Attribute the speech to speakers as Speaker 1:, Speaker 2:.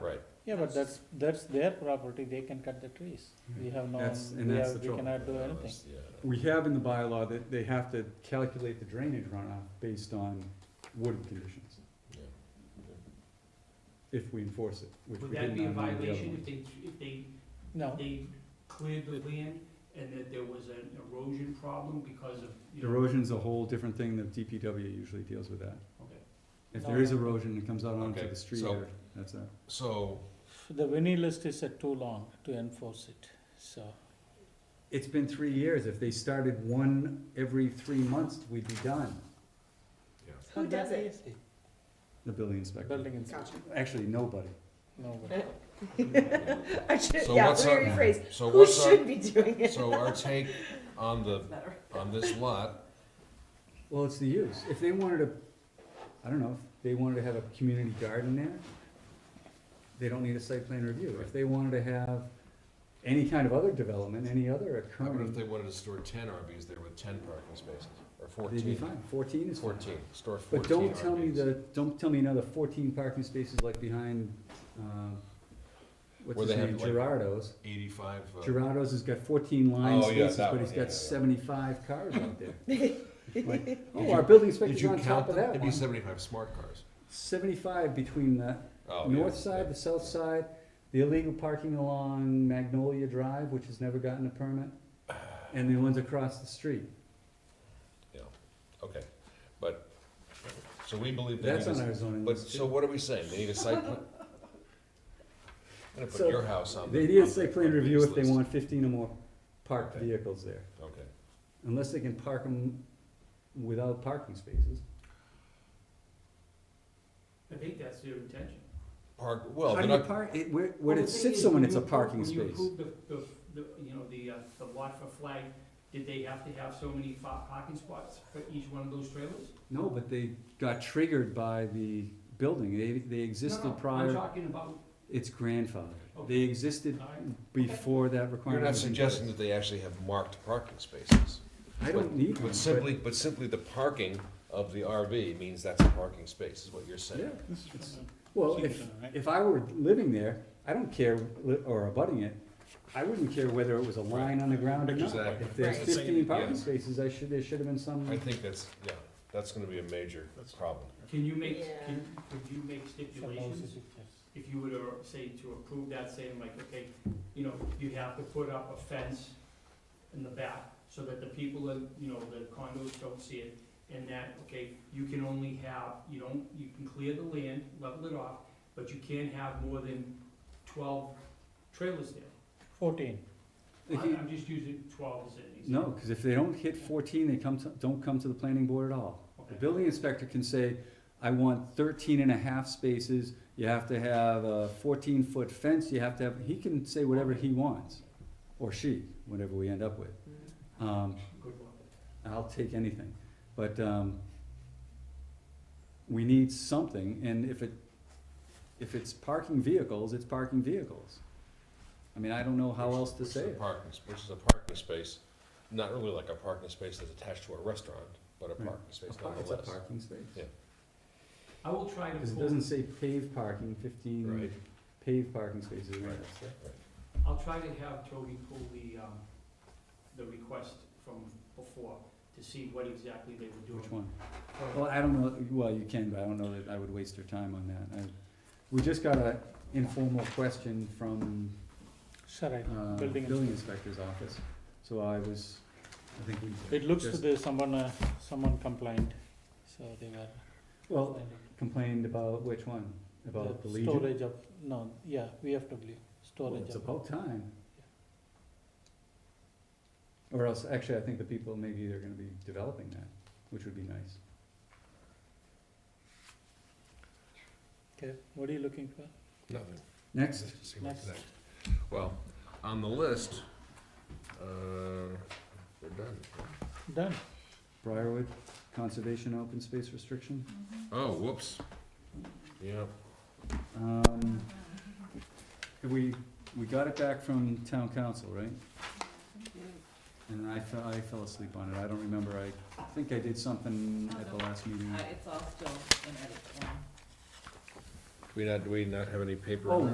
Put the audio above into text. Speaker 1: Yeah, but that's, that's their property, they can cut the trees. We have no,
Speaker 2: That's- and
Speaker 1: we
Speaker 2: that's
Speaker 1: have,
Speaker 2: the
Speaker 1: we cannot do
Speaker 3: Yeah,
Speaker 1: anything.
Speaker 3: that's- yeah.
Speaker 2: We have in the bylaw that they have to calculate the drainage runoff based on wooded conditions,
Speaker 3: Yeah.
Speaker 2: if we enforce it, which we
Speaker 4: Would that
Speaker 2: didn't
Speaker 4: be a
Speaker 2: on any of the other
Speaker 4: violation if
Speaker 2: ones.
Speaker 4: they, if they,
Speaker 1: No,
Speaker 4: they cleared the land and that there was an erosion problem because of, you know?
Speaker 2: Erosion's a whole different thing, the DPW usually deals with that.
Speaker 4: Okay.
Speaker 2: If
Speaker 1: No,
Speaker 2: there is
Speaker 1: no.
Speaker 2: erosion, it comes out onto
Speaker 3: Okay,
Speaker 2: the street
Speaker 3: so-
Speaker 2: or, that's that.
Speaker 3: So,
Speaker 1: the winnie list is uh, too long to enforce it, so.
Speaker 2: It's been three years, if they started one every three months, we'd be done,
Speaker 3: yeah,
Speaker 5: Who does it?
Speaker 2: the building inspector.
Speaker 1: Building inspector,
Speaker 5: Gotcha.
Speaker 2: Actually, nobody.
Speaker 1: no.
Speaker 5: I should,
Speaker 3: so
Speaker 5: yeah,
Speaker 3: what's
Speaker 5: let
Speaker 3: our,
Speaker 5: me rephrase.
Speaker 3: so
Speaker 5: Who
Speaker 3: what's
Speaker 5: should
Speaker 3: our,
Speaker 5: be doing it?
Speaker 3: so our take on the, on this lot,
Speaker 2: Well, it's the use. If they wanted to, I don't know, if they wanted to have a community garden there, they don't need a site plan review. If they wanted to have any kind of other development, any other
Speaker 3: how about if
Speaker 2: occurring,
Speaker 3: they wanted to store ten RVs there with ten parking spaces, or
Speaker 2: they'd be
Speaker 3: fourteen?
Speaker 2: fine. Fourteen is fine.
Speaker 3: Fourteen, store
Speaker 2: But
Speaker 3: fourteen
Speaker 2: don't tell me
Speaker 3: RVs.
Speaker 2: the, don't tell me another fourteen parking spaces like behind, uh, what's
Speaker 3: Where they
Speaker 2: his
Speaker 3: have,
Speaker 2: name,
Speaker 3: like-
Speaker 2: Gerardo's.
Speaker 3: Eighty-five, uh,
Speaker 2: Gerardo's has got fourteen line
Speaker 3: Oh, yeah,
Speaker 2: spaces,
Speaker 3: that
Speaker 2: but
Speaker 3: one,
Speaker 2: he's
Speaker 3: yeah, yeah, yeah.
Speaker 2: got seventy-five cars out there. Like,
Speaker 3: Did
Speaker 2: Oh,
Speaker 3: you-
Speaker 2: our building
Speaker 3: did
Speaker 2: inspector's
Speaker 3: you
Speaker 2: on top
Speaker 3: count them?
Speaker 2: of that
Speaker 3: It'd be
Speaker 2: one.
Speaker 3: seventy-five smart cars.
Speaker 2: Seventy-five between the
Speaker 3: Oh, yeah,
Speaker 2: north side,
Speaker 3: yeah.
Speaker 2: the south side, the illegal parking along Magnolia Drive, which has never gotten a permit, and the ones across the street.
Speaker 3: Okay, but, so we believe they need
Speaker 2: That's
Speaker 3: a,
Speaker 2: on our zoning
Speaker 3: but,
Speaker 2: list
Speaker 3: so
Speaker 2: too.
Speaker 3: what are we saying, they need a site plan? I'm gonna
Speaker 2: So,
Speaker 3: put your house on the.
Speaker 2: They need a
Speaker 3: on the-
Speaker 2: site
Speaker 3: on
Speaker 2: plan
Speaker 3: the
Speaker 2: review if they
Speaker 3: list.
Speaker 2: want fifteen or more parked
Speaker 3: Okay.
Speaker 2: vehicles there,
Speaker 3: Okay,
Speaker 2: unless they can park them without parking spaces.
Speaker 4: I think that's their intention.
Speaker 3: park, well,
Speaker 2: How
Speaker 3: they're
Speaker 2: do you
Speaker 3: not,
Speaker 2: park, it, where, where
Speaker 4: Well,
Speaker 2: it
Speaker 4: the thing
Speaker 2: sits
Speaker 4: is,
Speaker 2: someone,
Speaker 4: when
Speaker 2: it's
Speaker 4: you
Speaker 2: a
Speaker 4: appro-
Speaker 2: parking
Speaker 4: When
Speaker 2: space.
Speaker 4: you approved the, the, the, you know, the, uh, the lot for flag, did they have to have so many fa- parking spots for each one of those trailers?
Speaker 2: No, but they got triggered by the building, they, they
Speaker 4: No,
Speaker 2: existed
Speaker 4: no, I'm
Speaker 2: prior,
Speaker 4: talking about,
Speaker 2: it's grandfathered. They
Speaker 4: Okay.
Speaker 2: existed
Speaker 4: All right.
Speaker 2: before that
Speaker 3: you're
Speaker 2: requirement.
Speaker 3: not
Speaker 2: was in
Speaker 3: suggesting
Speaker 2: place.
Speaker 3: that they actually have marked parking spaces.
Speaker 2: I don't need one,
Speaker 3: But
Speaker 2: but-
Speaker 3: simply, but simply the parking of the RV means that's a parking space, is what you're
Speaker 2: Yeah,
Speaker 3: saying.
Speaker 2: it's- well, if,
Speaker 1: Right.
Speaker 2: if I were living there, I don't care, li- or abutting it, I wouldn't care whether it was a line on the ground or not.
Speaker 3: Exactly.
Speaker 2: If there's
Speaker 5: Right.
Speaker 2: fifteen
Speaker 3: Yeah.
Speaker 2: parking spaces, I should, there should have been some,
Speaker 3: I think that's, yeah, that's gonna be a major problem.
Speaker 4: can you make,
Speaker 5: Yeah.
Speaker 4: can, could you make
Speaker 1: Some lousy
Speaker 4: stipulations?
Speaker 1: pictures.
Speaker 4: If you were to say to approve that, saying like, okay, you know, you have to put up a fence in the back so that the people in, you know, the condos don't see it. And that, okay, you can only have, you don't, you can clear the land, level it off, but you can't have more than twelve trailers there.
Speaker 1: Fourteen,
Speaker 2: If
Speaker 4: I-
Speaker 2: you-
Speaker 4: I'm just using twelve as an
Speaker 2: no,
Speaker 4: example.
Speaker 2: because if they don't hit fourteen, they come to, don't come to the planning board at all. The
Speaker 4: Okay.
Speaker 2: building inspector can say, I want 13 and a half spaces, you have to have a fourteen-foot fence, you have to have, he can say whatever he wants, or she, whatever we end up with. Um,
Speaker 4: Good one.
Speaker 2: I'll take anything, but, um, we need something, and if it, if it's parking vehicles, it's parking vehicles. I mean, I don't know how
Speaker 3: Which-
Speaker 2: else to
Speaker 3: which is
Speaker 2: say
Speaker 3: a
Speaker 2: it.
Speaker 3: Parking, sp- which is a parking space, not really like a parking space that's attached to a restaurant, but a
Speaker 2: Right.
Speaker 3: parking space
Speaker 2: It's a par- It's a
Speaker 3: nonetheless.
Speaker 2: parking space.
Speaker 3: Yeah.
Speaker 4: I will try to
Speaker 2: 'Cause it
Speaker 4: pull,
Speaker 2: doesn't say paved parking, fifteen
Speaker 3: Right.
Speaker 2: paved parking spaces, right,
Speaker 3: Right.
Speaker 2: so.
Speaker 4: I'll try to have Toby pull the, um, the request from before to see what exactly they were doing.
Speaker 2: Which one?
Speaker 4: From-
Speaker 2: Well, I don't know, well, you can, but I don't know that I would waste your time on that. I, we just got a informal question from
Speaker 1: Sarai,
Speaker 2: uh,
Speaker 1: building.
Speaker 2: building
Speaker 1: inspector.
Speaker 2: inspector's office, so I was, I think we.
Speaker 1: It looks to
Speaker 2: just-
Speaker 1: the, someone, uh, someone complained, so they were.
Speaker 2: Well,
Speaker 1: finding
Speaker 2: complained about which one? About the Legion?
Speaker 1: Storage of, no, yeah, VFW,
Speaker 2: Well,
Speaker 1: storage
Speaker 2: It's
Speaker 1: of.
Speaker 2: about time. Or else, actually, I think the people, maybe they're gonna be developing that, which would be nice.
Speaker 1: Okay, what are you looking for?
Speaker 3: Nothing.
Speaker 2: Next,
Speaker 3: Let's see what's
Speaker 1: Next.
Speaker 3: next. Well, on the list, uh, we're done.
Speaker 1: Done.
Speaker 2: Briarwood Conservation Open Space Restriction.
Speaker 3: Oh, whoops. Yeah,
Speaker 2: Um, we, we got it back from town council, right? And I fell, I fell asleep on it, I don't remember, I think I did something at the last meeting.
Speaker 5: It's all still an edit form.
Speaker 3: do we not, do we not have any paper?
Speaker 2: Oh,
Speaker 3: on that?